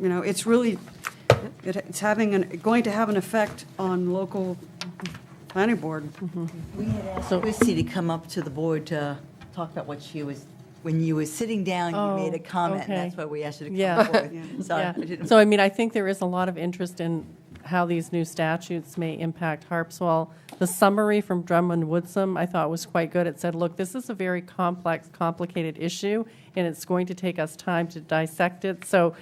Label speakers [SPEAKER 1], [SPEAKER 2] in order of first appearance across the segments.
[SPEAKER 1] you know, it's really, it- it's having, an going to have an effect on local planning board.
[SPEAKER 2] We had asked Christie to come up to the board to talk about what she was, when you were sitting down, you made a
[SPEAKER 3] Oh,
[SPEAKER 2] comment, and
[SPEAKER 3] okay.
[SPEAKER 2] that's why we asked you to
[SPEAKER 3] Yeah.
[SPEAKER 2] come forward. So I
[SPEAKER 3] Yeah.
[SPEAKER 2] didn't-
[SPEAKER 3] So I mean, I think there is a lot of interest in how these new statutes may impact Harpswell. The summary from Drummond Woodsum, I thought was quite good. It said, look, this is a very complex, complicated issue, and it's going to take us time to dissect it. So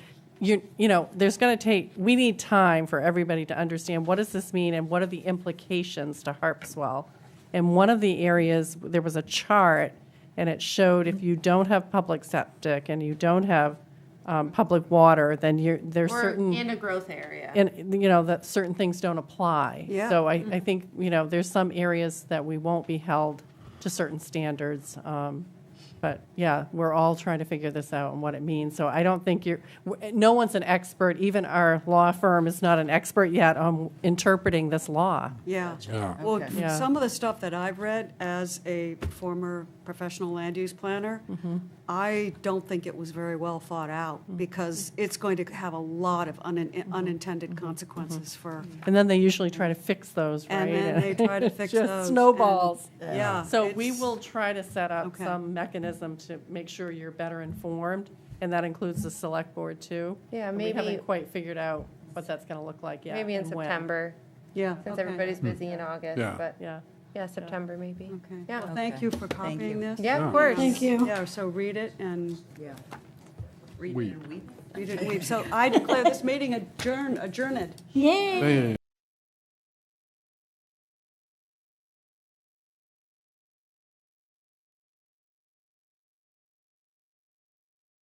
[SPEAKER 3] you, you know, there's going to take, we need time for everybody to understand what does this mean and what are the implications to Harpswell. And one of the areas, there was a chart, and it showed if you don't have public septic and you don't have um, public water, then you're, there's
[SPEAKER 4] Or
[SPEAKER 3] certain,
[SPEAKER 4] in a growth area.
[SPEAKER 3] and, you know, that certain things don't apply.
[SPEAKER 1] Yeah.
[SPEAKER 3] So I,
[SPEAKER 4] Mm-hmm.
[SPEAKER 3] I think, you know, there's some areas that we won't be held to certain standards. um, But, yeah, we're all trying to figure this out and what it means. So I don't think you're, w- no one's an expert, even our law firm is not an expert yet on interpreting this law.
[SPEAKER 1] Yeah.
[SPEAKER 5] Yeah.
[SPEAKER 1] Well,
[SPEAKER 2] Okay.
[SPEAKER 3] Yeah.
[SPEAKER 1] some of the stuff that I've read as a former professional land use planner, I don't think it was very well thought out because it's going to have a lot of unin- unintended consequences for,
[SPEAKER 3] And then they usually try to fix those, right?
[SPEAKER 1] and then they try to fix
[SPEAKER 3] Just
[SPEAKER 1] those. and-
[SPEAKER 3] snowballs.
[SPEAKER 1] Yeah.
[SPEAKER 3] So we
[SPEAKER 1] it's-
[SPEAKER 3] will try to set up
[SPEAKER 1] Okay.
[SPEAKER 3] some mechanism to make sure you're better informed, and that includes the select board too.
[SPEAKER 4] Yeah,
[SPEAKER 3] And We
[SPEAKER 4] maybe-
[SPEAKER 3] haven't quite figured out what that's going to look like yet.
[SPEAKER 4] Maybe in
[SPEAKER 3] and when.
[SPEAKER 4] September,
[SPEAKER 1] Yeah.
[SPEAKER 4] since
[SPEAKER 1] okay.
[SPEAKER 4] everybody's busy in August,
[SPEAKER 5] Yeah.
[SPEAKER 4] but,
[SPEAKER 3] Yeah.
[SPEAKER 4] yeah, September maybe.
[SPEAKER 1] Okay.
[SPEAKER 4] Yeah.
[SPEAKER 1] Well, Thank you for
[SPEAKER 2] Thank
[SPEAKER 1] copying
[SPEAKER 2] you.
[SPEAKER 1] this.
[SPEAKER 4] Yeah, of course.
[SPEAKER 1] you. Yeah, so read it and
[SPEAKER 2] Yeah.
[SPEAKER 5] Weep.
[SPEAKER 1] read it. and weep. So I declare this meeting adjourn adjourned.
[SPEAKER 5] Hey.